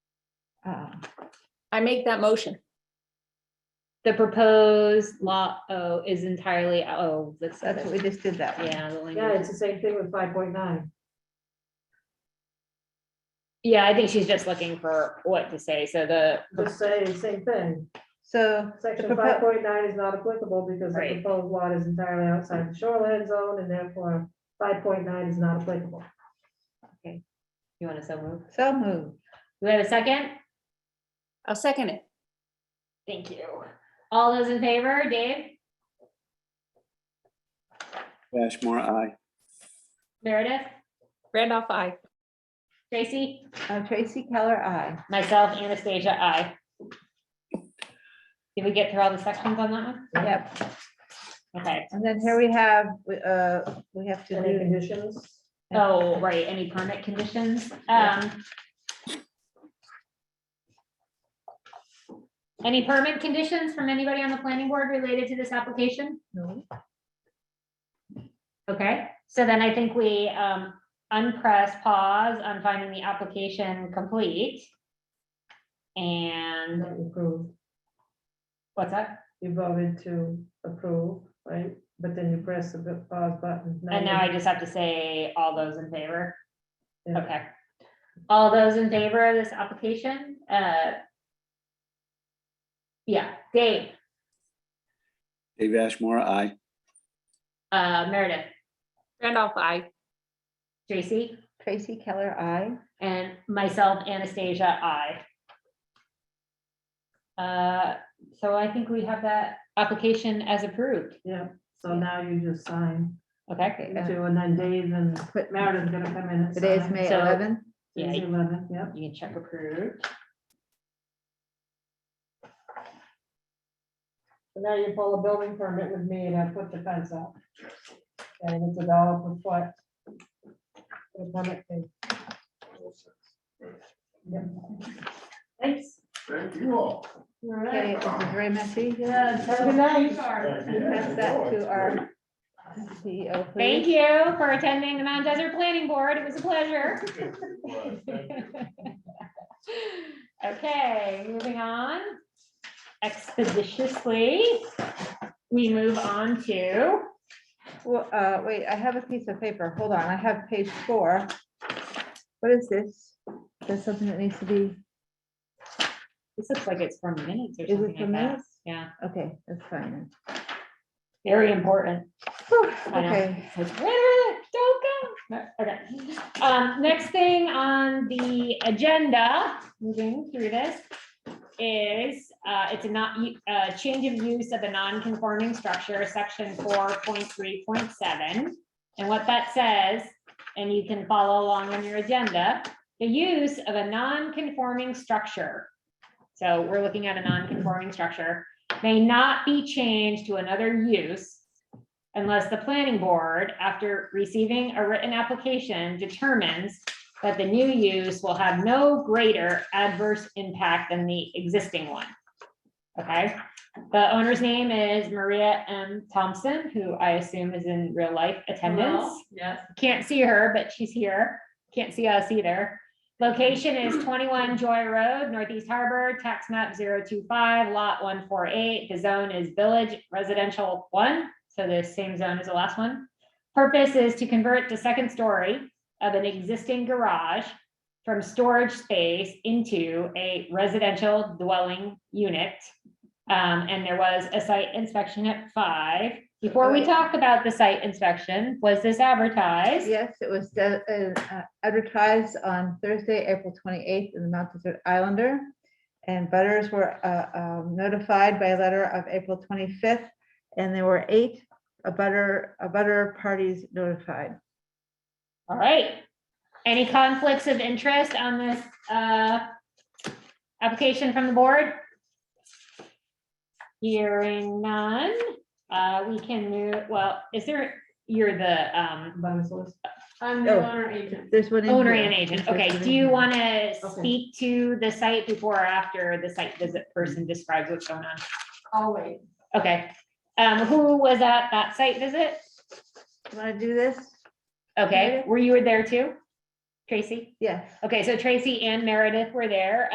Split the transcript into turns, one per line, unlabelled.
um,
I make that motion.
The proposed lot O is entirely, oh, that's,
That's what we just did that one.
yeah. the
Yeah,
language
it's the
is-
same thing with five point nine.
Yeah, I think she's just looking for what to say, so the,
Just say the same thing.
So the
Section five
propo-
point nine is not applicable because the
Right.
proposed lot is entirely outside the shoreline zone and therefore five point nine is not applicable.
you want to so move?
so moved.
Do we have a second?
I'll second it.
Thank you. All those in favor, Dave,
Bashmore, aye.
Meredith,
Randolph, I.
Tracy,
Uh, Tracy Keller, I.
myself, Anastasia, I. Did we get through all the sections on that one?
Yep.
Okay,
And then here we have, uh, we have to
Any
do
conditions?
oh, right, any permit conditions? Um. Any permit conditions from anybody on the planning board related to this application?
No.
Okay, so then I think we um unpress pause on finding the application complete. And
Not approved.
what's that?
You voted to approve, right? But then you press the bu- pause button.
And
you-
now I just have to say all those in favor.
Yeah.
Okay. All those in favor of this application, uh. Yeah, Dave,
Dave Ashmore, aye.
uh, Meredith,
Randolph, I.
Tracy,
Tracy Keller, I.
and myself, Anastasia, I. Uh, so I think we have that application as approved.
Yeah, so now you just sign
Okay,
Okay, uh,
to, and then Dave and
put-
Meredith's gonna come in. and
Today's
sign.
May
So-
11th.
yeah,
Today's
you
Eleven, yep.
can check approved.
And now you pull a building permit with me and I put the fence up. And it's a dollar per foot. For the permit fee. Yep.
Thanks.
Thank you all.
All
Okay,
right.
this is very messy.
Have a good night.
Pass that to our CEO,
Thank
please.
you for attending the Mount Desert Planning Board. It was a pleasure. Okay, moving on expeditiously. We move on to,
Well, uh, wait, I have a piece of paper. Hold on, I have page four. What is this? There's something that needs to be,
this looks like it's from minutes or
is it for
something like that.
minutes?
Yeah,
Okay, that's fine.
very important.
then.
I know.
Okay,
It's like, "Wait a minute, don't go. No, Okay. Um, next thing on the agenda, moving through this, is, uh, it's a not, u- uh, change of use of a non-conforming structure, section four point three point seven. And what that says, and you can follow along on your agenda, the use of a non-conforming structure. So we're looking at a non-conforming structure, may not be changed to another use unless the planning board, after receiving a written application, determines that the new use will have no greater adverse impact than the existing one. Okay, the owner's name is Maria M. Thompson, who I assume is in real life attendance.
Yes,
Can't see her, but she's here. Can't see us either. Location is twenty-one Joy Road, Northeast Harbor, tax map 025, lot one four eight. The zone is village residential one, so the same zone as the last one. Purpose is to convert the second story of an existing garage from storage space into a residential dwelling unit. Um, and there was a site inspection at five. Before we
Right.
talk about the site inspection, was this advertised?
yes, it was de- uh, uh, advertised on Thursday, April 28th in the Mount Desert Islander. And butters were uh, um, notified by letter of April 25th, and there were eight a butter, a butter parties notified.
All right. Any conflicts of interest on this uh, application from the board? Hearing none, Uh, we can move, well, is there, you're the um,
By the solicitor.
I'm the
Oh.
owner agent.
There's one. in
owner
here.
and agent.
There's
Okay,
one in
do you
here.
want to speak to the site before or after the site visit person describes what's going on?
I'll wait.
Okay. Um, Who was at that site visit?
You Want to do this?
Mm-hmm. Okay, were you there too? Tracy?
Yes.
Okay, so Tracy and Meredith were there.